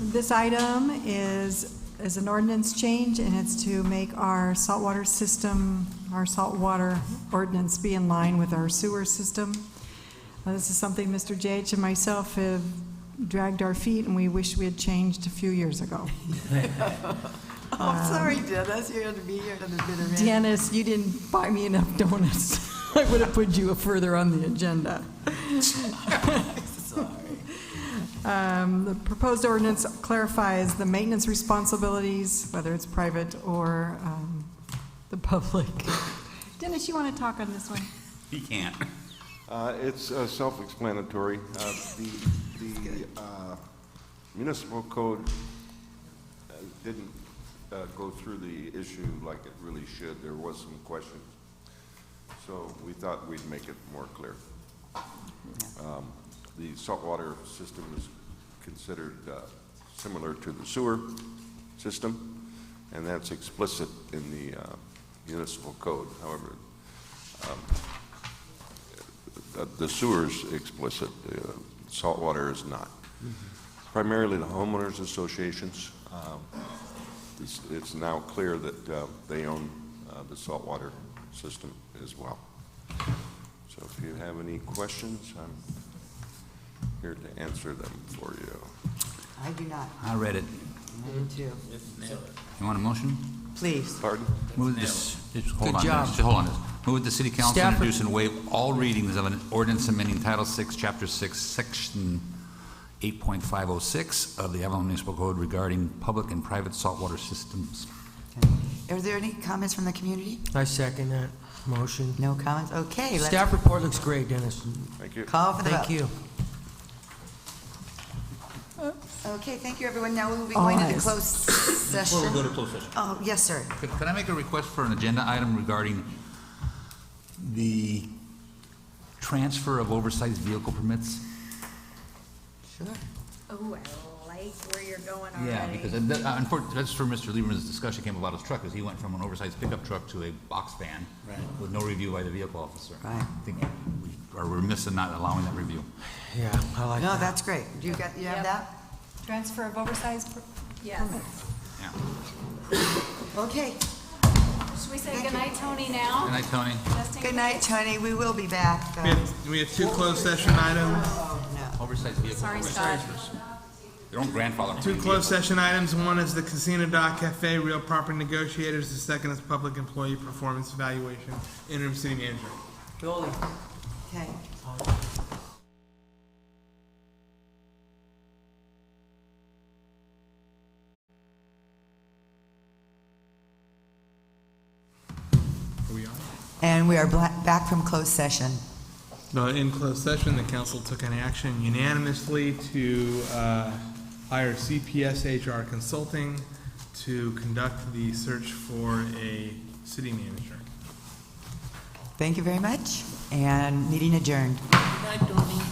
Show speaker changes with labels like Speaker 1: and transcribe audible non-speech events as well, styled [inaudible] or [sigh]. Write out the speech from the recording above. Speaker 1: This item is, is an ordinance change, and it's to make our saltwater system, our saltwater ordinance be in line with our sewer system. Uh, This is something Mr. J.H. and myself have dragged our feet, and we wish we had changed a few years ago.
Speaker 2: [laughs] Oh, sorry, Dennis, you had to be here to the bitter end.
Speaker 1: Dennis, you didn't buy me enough donuts. [laughs] I would have put you further on the agenda. [laughs] Um, The proposed ordinance clarifies the maintenance responsibilities, whether it's private or um, the public. Dennis, you want to talk on this one?
Speaker 3: He can't.
Speaker 4: Uh, It's uh, self-explanatory. Uh, The the, uh, municipal code uh, didn't uh, go through the issue like it really should. There was some questions. So we thought we'd make it more clear. Um, The saltwater system is considered uh, similar to the sewer system, and that's explicit in the uh, municipal code. However, uh, The sewer's explicit, uh, saltwater is not. Primarily the homeowners associations, um, it's- it's now clear that uh, they own uh, the saltwater system as well. So if you have any questions, I'm here to answer them for you.
Speaker 2: I do not,
Speaker 3: I read it.
Speaker 2: I do too.
Speaker 3: You want a motion?
Speaker 2: Mm. Please.
Speaker 4: Pardon?
Speaker 3: Move this, just hold on,
Speaker 5: Good job.
Speaker 3: just hold on. Move the city council
Speaker 5: Stafford.
Speaker 3: introduce and waive all readings of an ordinance amending Title VI, Chapter 6, Section 8.506 of the Avalon Municipal Code regarding public and private saltwater systems.
Speaker 2: Are there any comments from the community?
Speaker 5: I second that motion.
Speaker 2: No comments? Okay, let's
Speaker 5: Staff report looks great, Dennis.
Speaker 4: Thank you.
Speaker 2: call for the vote.
Speaker 5: Thank you.
Speaker 2: Okay, thank you, everyone. Now we'll be
Speaker 1: All
Speaker 2: going to the
Speaker 1: eyes.
Speaker 2: closed session.
Speaker 3: closed session.
Speaker 2: Oh, yes, sir.
Speaker 3: Could could I make a request for an agenda item regarding the transfer of oversized vehicle permits?
Speaker 2: Sure.
Speaker 6: Oh, I like where you're going already.
Speaker 3: Yeah, because uh, that- uh, unfortunately, that's where Mr. Lieberman's discussion came about his truck, is he went from an oversized pickup truck to a box van with no review by the vehicle officer.
Speaker 2: Right.
Speaker 3: I think we are remiss in not allowing that review.
Speaker 5: Yeah, I like
Speaker 2: No,
Speaker 5: that.
Speaker 2: that's great. Do you got, you have
Speaker 6: Yep.
Speaker 2: that?
Speaker 1: Transfer of oversized
Speaker 6: Yes.
Speaker 3: Yeah.
Speaker 2: Okay.
Speaker 6: Should we say
Speaker 2: Thank you.
Speaker 6: goodnight, Tony, now?
Speaker 3: Good night, Tony.
Speaker 6: Justin,
Speaker 2: Good night, Tony. We will be back. uh,
Speaker 7: We have, we have two closed session items,
Speaker 2: Oh, no.
Speaker 3: Oversized vehicle.
Speaker 6: Sorry,
Speaker 3: oversized
Speaker 6: Scott.
Speaker 3: versus- Your own grandfather.
Speaker 7: two closed session items. One is the Casino Dock Cafe Real Property Negotiators. The second is Public Employee Performance Evaluation, interim city manager.
Speaker 2: Okay.
Speaker 7: Are we on?
Speaker 2: And we are bla- back from closed session.
Speaker 7: No, Uh, in closed session, the council took an action unanimously to uh, hire CPS HR Consulting to conduct the search for a city manager.
Speaker 2: Thank you very much, and meeting adjourned.
Speaker 8: Good night, Tony.